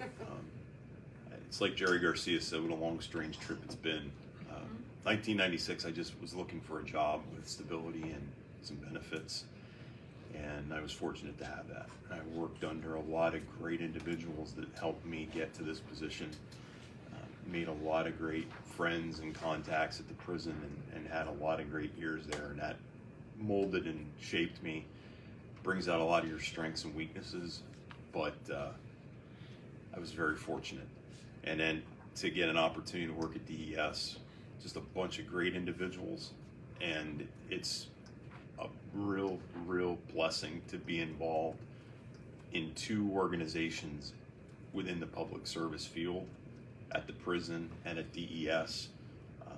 Um, it's like Jerry Garcia said, what a long, strange trip it's been. Um, 1996, I just was looking for a job with stability and some benefits, and I was fortunate to have that. I worked under a lot of great individuals that helped me get to this position. Um, Made a lot of great friends and contacts at the prison and, and had a lot of great years there, and that molded and shaped me. Brings out a lot of your strengths and weaknesses, but uh, I was very fortunate. And then to get an opportunity to work at DES, just a bunch of great individuals. And it's a real, real blessing to be involved in two organizations within the public service field at the prison and at DES. Um,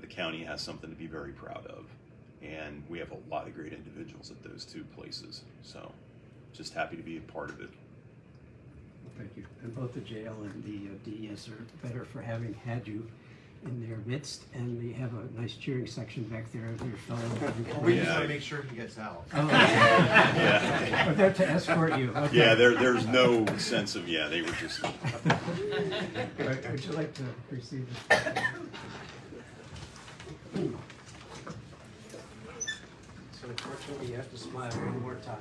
the county has something to be very proud of. And we have a lot of great individuals at those two places. So just happy to be a part of it. Thank you. And both the jail and the uh, DES are better for having had you in their midst, and they have a nice cheering section back there of your fellow. We just want Yeah. to make sure he gets out. Oh, okay. Yeah. But they're to escort you. okay. Yeah, there, there's no sense of, yeah, they were just, All right, Would you like to receive this? So unfortunately, you have to smile one more time.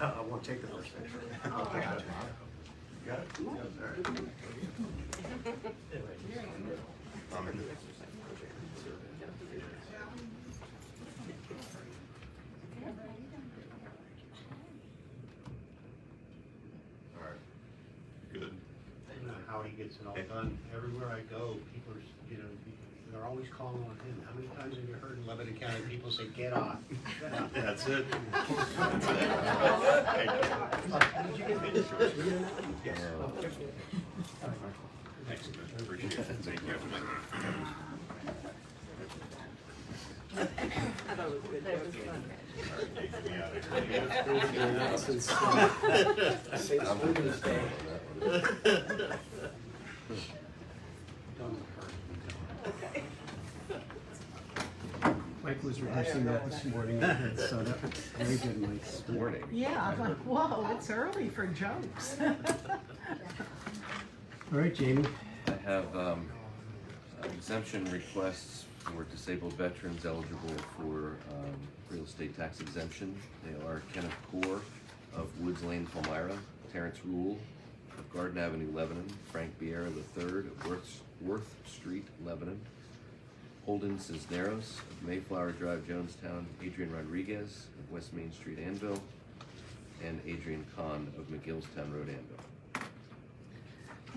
I won't take the first picture. I got it. You got it? All right. All right. good. I don't know how he gets it all done. Everywhere I go, people are, s- you know, they're always calling on him. How many times have you heard in Lebanon County, people say, get off? get off." That's it. Did you get me this first? Yes. Thanks, I appreciate it. Thank you. uh, Mike was rehearsing that this morning, so that was very good, Mike. Morning. Yeah, I'm like, whoa, it's early for jokes. All right, Jamie. I have um, exemption requests for disabled veterans eligible for um, real estate tax exemption. They are Kenneth Core of Woods Lane, Palmyra, Terrence Rule of Garden Avenue, Lebanon, Frank Biera III of Worth, Worth Street, Lebanon, Holden Cisneros of Mayflower Drive, Jonestown, Adrian Rodriguez of West Main Street, Anvil, and Adrian Kahn of McGillstown Road, Anvil.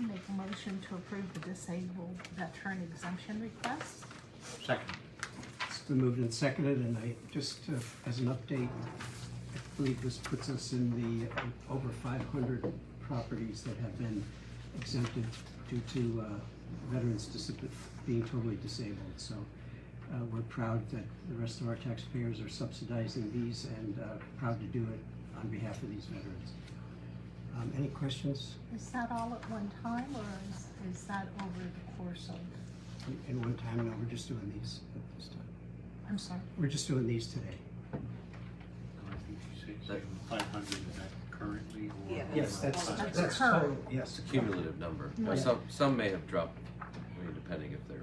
Make a motion to approve the disabled veteran exemption request. Second. It's been moved and seconded, and I, just uh, as an update, I believe this puts us in the um, over five hundred properties that have been exempted due to uh, veterans disab- being totally disabled. So uh, we're proud that the rest of our taxpayers are subsidizing these and uh, proud to do it on behalf of these veterans. Um, Any questions Is that all at one time or is, is that over the course of, in one time? No, we're just doing these at this time. I'm sorry, We're just doing these today. I think you said five hundred, is that currently or? Yeah. Yes, that's, Oh, That's that's current. total, yes. cumulative number. Now, Yeah. some, some may have dropped, I mean, depending if they're,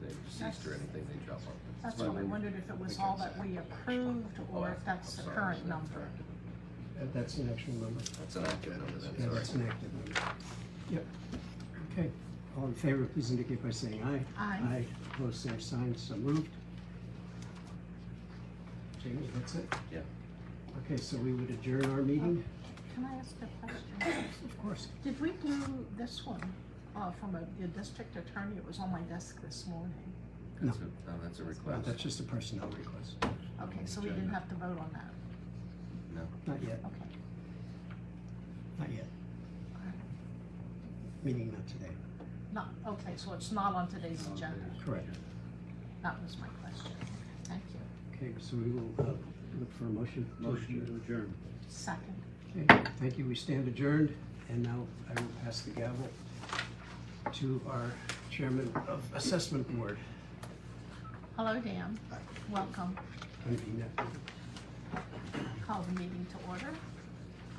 they're deceased or That's- anything, they drop off. that's what we Oh, wondered if it was all that we approved or if that's Oh, the current number. Uh, That's an actual number. That's an active number then, Yeah, sorry. that's an active number. Yep. Okay. All in favor, please indicate by saying aye. Aye. Opposed, same sign, so moved. Jamie, that's it? Yeah. Okay, so we would adjourn our meeting? Can I ask a question? Of course. Did we do this one, uh, from a, the district attorney? It was on my desk this morning. No. That's a- No, that's a Uh, request. That's just a personnel request. Okay, so we didn't have to vote on that. No. Not yet, Okay. not yet. Meeting not today. Not, okay, so it's not on today's agenda. Correct. That was my question. Thank you. Okay, so we will uh, look for a motion. to adjourn. Motion to adjourn. Second. Okay, thank you, we stand adjourned, and now I will pass the gavel to our chairman of assessment board, Hello, Dan. Welcome. Convina. Call the meeting to order.